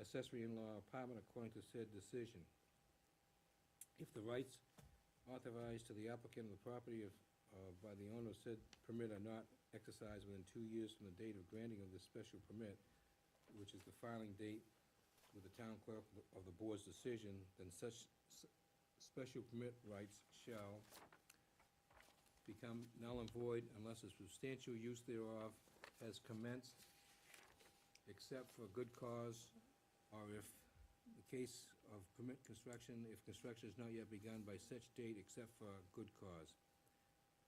accessory in-law apartment according to said decision. If the rights authorized to the applicant of the property of, uh, by the owner of said permit are not exercised within two years from the date of granting of this special permit, which is the filing date with the town clerk of the- of the board's decision, then such s- special permit rights shall become null and void unless a substantial use thereof has commenced, except for good cause, or if the case of permit construction, if construction is not yet begun by such date except for good cause.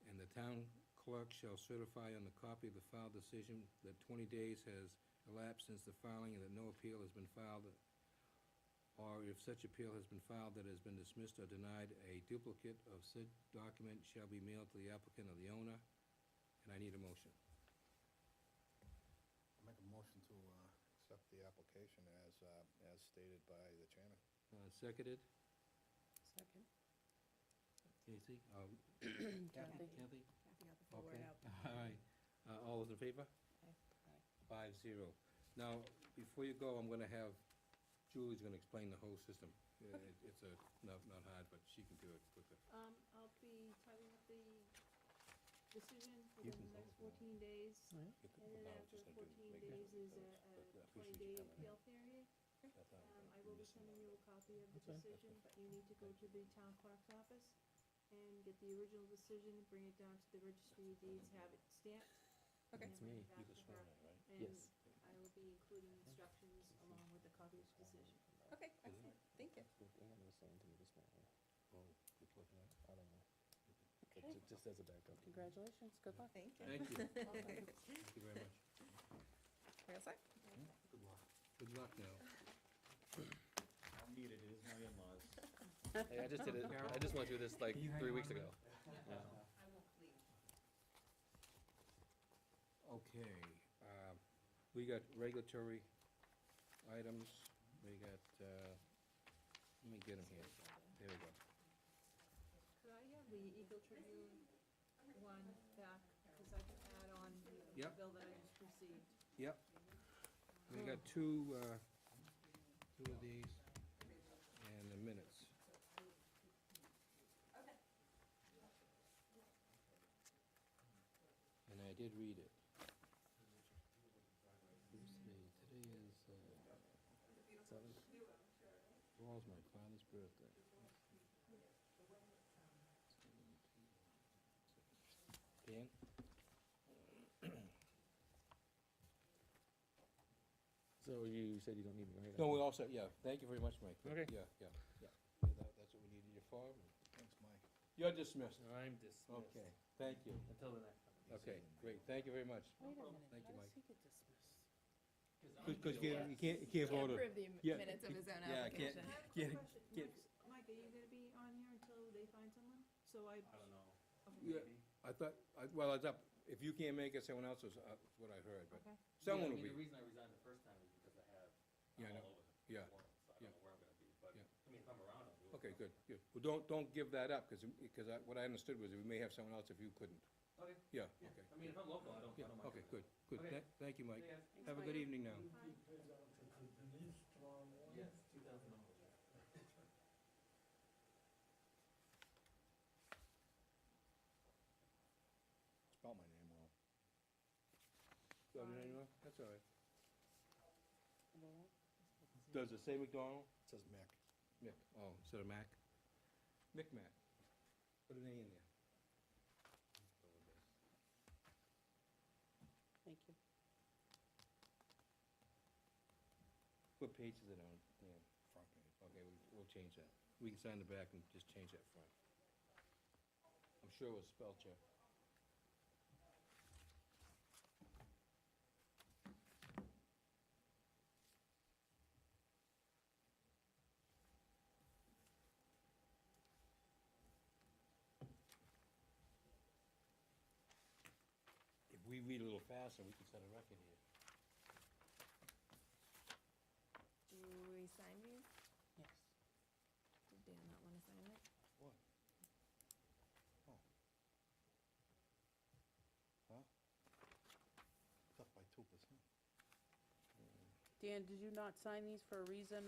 And the town clerk shall certify on the copy of the filed decision that twenty days has elapsed since the filing and that no appeal has been filed, or if such appeal has been filed that has been dismissed or denied, a duplicate of said document shall be mailed to the applicant or the owner, and I need a motion. I Make a motion to uh, accept the application as, uh, as stated by the chairman. Uh, Seconded, Second. Casey? Uh, Um, Kathy. Kathy? Kathy got the full Okay. word out. All right, Uh, all those in favor? Aye. Aye. Five zero. Now, before you go, I'm gonna have, Julie's gonna explain the whole system. Yeah, it- It's a, not, not hard, but she can do it quicker. Um, I'll be typing up the decision You within can the next vote now. fourteen days. You could- And then no, it's after just gonna do- fourteen make it- days is a, but- uh, but a at least we should twenty-day have it. appeal period. That's all. Um, I will be sending you a copy of the That's right. decision, but you need to go to the town clerk's office and get the original decision, bring it down to the registry of deeds, have it stamped. and Okay. then bring it back You to could her, swear in, right? And Mm. I will be including instructions along with the copy of the decision. Okay, excellent, thank you. Oh, good luck, yeah. Okay, Just as a backup. congratulations, good luck. Thank you. Thank you, thank you very much. We all set? Good luck. Good luck now. I'll need it, it is my in-laws. Hey, I just did it, I just went through this like three weeks ago. I won't leave. Okay, um, we got regulatory items, we got, uh, let me get them here. There we go. Could I have the Eagle Tribune one back, because I can add on the Yep. bill that I just received. Yep. We got two, uh, two of these and the minutes. And I did read it. Let's see, today is, uh, Seven. tomorrow's my father's birthday. Dan? So you said you don't need me, right? No, we're all set, yeah. Thank you very much, Mike. Okay. Yeah, yeah, yeah. Yeah, that- That's what we needed you for. Thanks, Mike. You're dismissed. I'm dismissed. Okay, thank you. Until the next time. Okay, great, thank you very much. Wait a minute, Thank you, how Mike. does he get dismissed? Because you can't, you can't, you can't vote it. the Yeah, minutes of his own yeah, I can't- I have a Get it, quick question. get Mike's- Mike, are you gonna be on here until they find someone? So I. I don't know. okay. Yeah, I thought, I, well, it's up, if you can't make it, someone else is, uh, what I heard, but Okay. someone will Yeah, I mean, The be. reason I resigned the first time is because I have, Yeah, I I'm know. all over the Yeah, world, so I yeah. don't know where I'm gonna be, but, Yeah. I mean, if I'm around, I'll do it. Okay, good, good. Well, don't, don't give that up, because, because I, what I understood was we may have someone else if you couldn't. Okay, Yeah, yeah, okay. I mean, if I'm local, I don't, I Yeah, don't mind. okay, coming good, good. Okay. Tha- Thank you, in. Mike. Yeah, Thanks, Have a Mike. good evening now. Bye. Yes, two thousand dollars. Spell my name wrong. Oh, did I know? That's all right. Laura? Does it say McDonald? It says Mick. Mick, oh, instead of Mac? Mick Mac. Put an A in there. Thank you. What page is it on, Dan? Front page. Okay, we- we'll change that. We can sign the back and just change that front. I'm sure it was spell check. If we read a little faster, we can set a record here. Do we sign these? Yes. Did Dan not wanna sign it? What? Oh. Huh? It's up by two percent. Dan, did you not sign these for a reason,